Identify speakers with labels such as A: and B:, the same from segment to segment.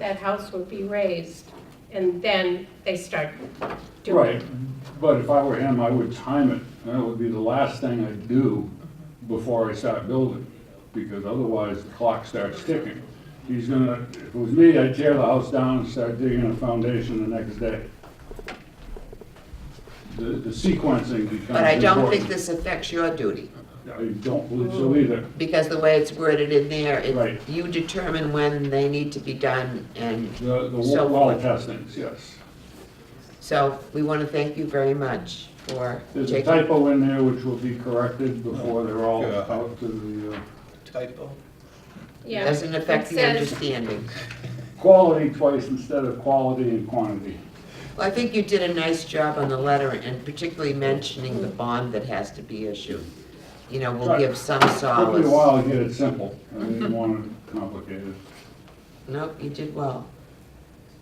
A: that house would be raised, and then they start doing.
B: Right, but if I were him, I would time it, and that would be the last thing I'd do before I start building, because otherwise the clock starts ticking. He's gonna, if it was me, I'd tear the house down and start digging a foundation the next day. The, the sequencing becomes important.
C: But I don't think this affects your duty,
B: I don't believe so either.
C: because the way it's worded in there,
B: Right.
C: it- you determine when they need to be done, and
B: The, the
C: So
B: wa- well
C: forth.
B: testings, yes.
C: so we want to thank you very much for
B: There's a
C: taking.
B: typo in there which will be corrected before they're all
D: Yeah.
B: out to the, uh,
D: typo.
A: Yeah.
C: Doesn't affect
A: It
C: the
A: says-
C: understanding.
B: quality twice instead of quality and quantity.
C: Well, I think you did a nice job on the letter, and particularly mentioning the bond that has to be issued. You know, will
B: Right.
C: give some
B: Took me a
C: solace.
B: while to get it simple. I didn't want it complicated.
C: Nope, you did well.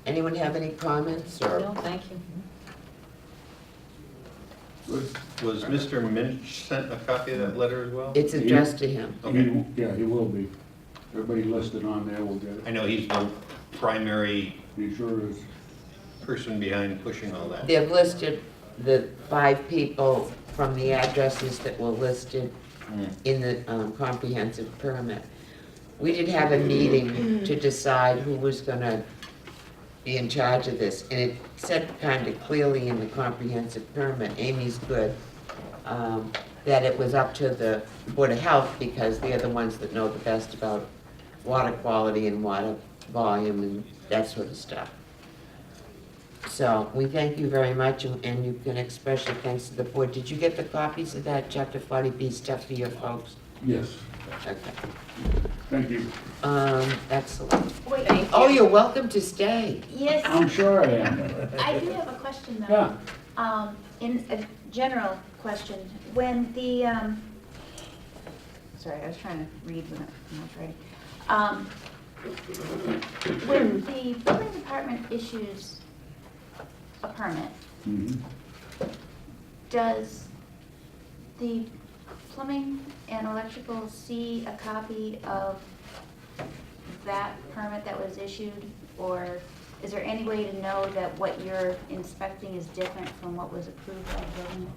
C: Anyone have any comments, or?
E: thank you.
D: Was Mr. Minch sent a copy of that letter as well?
C: It's addressed to him.
B: He-
D: Okay.
B: Yeah, he will be. Everybody listed on there will get
D: I
B: it.
D: know he's the primary
B: He sure is.
D: person behind pushing all that.
C: They've listed the five people from the addresses that were listed
D: Hmm.
C: in the um, comprehensive permit. We did have a meeting to decide who was gonna be in charge of this, and it said kind of clearly in the comprehensive permit, Amy's good, um, that it was up to the Board of Health, because they're the ones that know the best about water quality and water volume and that sort of stuff. So, we thank you very much, and and you can express your thanks to the board. Did you get the copies of that chapter forty B stuff for your folks?
B: Yes,
C: Okay,
B: thank you.
C: um, excellent.
E: Wait,
A: Thank
C: Oh, you're welcome to stay.
E: yes,
B: I'm sure I am.
E: I do have a question though.
B: Yeah,
E: Um, in a general question, when the, um, sorry, I was trying to read when I when I was writing. Um, when the building department issues a permit,
B: mhm.
E: does the plumbing and electrical see a copy of that permit that was issued? Or is there any way to know that what you're inspecting is different from what was approved by the building?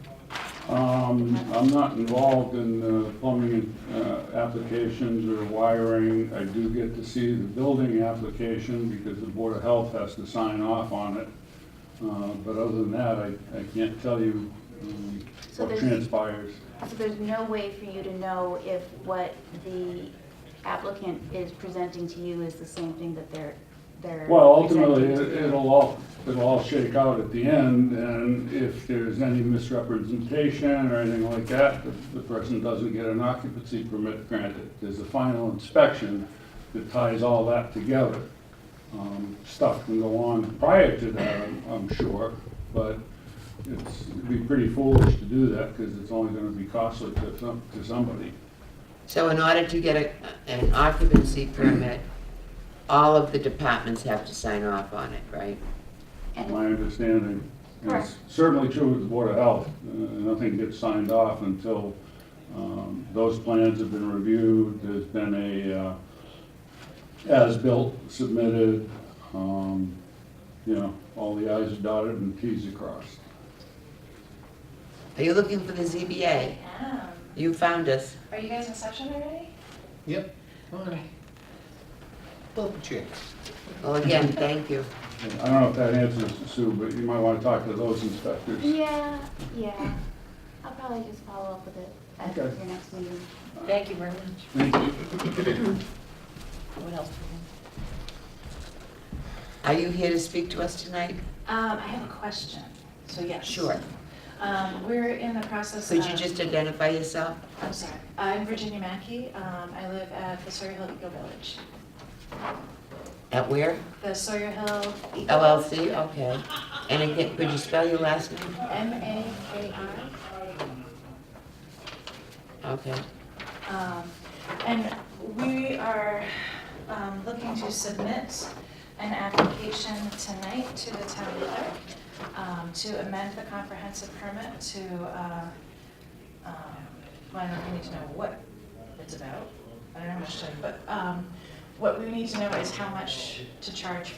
B: Um, I'm not involved in uh, plumbing uh, applications or wiring. I do get to see the building application because the Board of Health has to sign off on it. Uh, But other than that, I I can't tell you um,
E: So
B: what
E: there's-
B: transpires.
E: So there's no way for you to know if what the applicant is presenting to you is the same thing that they're, they're.
B: Well, ultimately,
E: presenting to
B: it-
E: you?
B: it'll all, it'll all shake out at the end, and if there's any misrepresentation or anything like that, the- the person doesn't get an occupancy permit granted. There's a final inspection that ties all that together. Um, Stuff can go on prior to that, I'm- I'm sure, but it's, it'd be pretty foolish to do that, because it's only gonna be costly to some, to somebody.
C: So in order to get a, an occupancy permit, all of the departments have to sign off on it, right?
E: And-
B: my understanding. And it's
E: Correct.
B: Certainly true with the Board of Health. Uh, Nothing gets signed off until um, those plans have been reviewed, there's been a uh, as-built submitted, um, you know, all the i's are dotted and t's are crossed.
C: Are you looking for the ZBA?
F: Yeah.
C: You found us.
F: Are you guys in session already?
D: Yep. Alright. Well, chicks.
C: Well, again, thank you.
B: And I don't know if that answers Sue, but you might want to talk to those inspectors.
E: Yeah, yeah. I'll probably just follow up with it at your
B: Okay.
E: next meeting.
F: Thank you very much.
B: Thank you.
F: What else?
C: Are you here to speak to us tonight?
F: Um, I have a question, so yes.
C: Sure.
F: Um, we're in the process of.
C: Could you just identify yourself?
F: I'm sorry, I'm Virginia Mackey, um, I live at the Sawyer Hill Eco Village.
C: At where?
F: The Sawyer Hill.
C: E
F: Eco-
C: LLC? Okay. And again, could you spell your last name?
F: M A K I.
C: Okay.
F: Um, And we are um, looking to submit an application tonight to the town clerk um, to amend the comprehensive permit to, uh, um, well, I don't need to know what it's about. I don't know how much time, but um, what we need to know is how much to charge for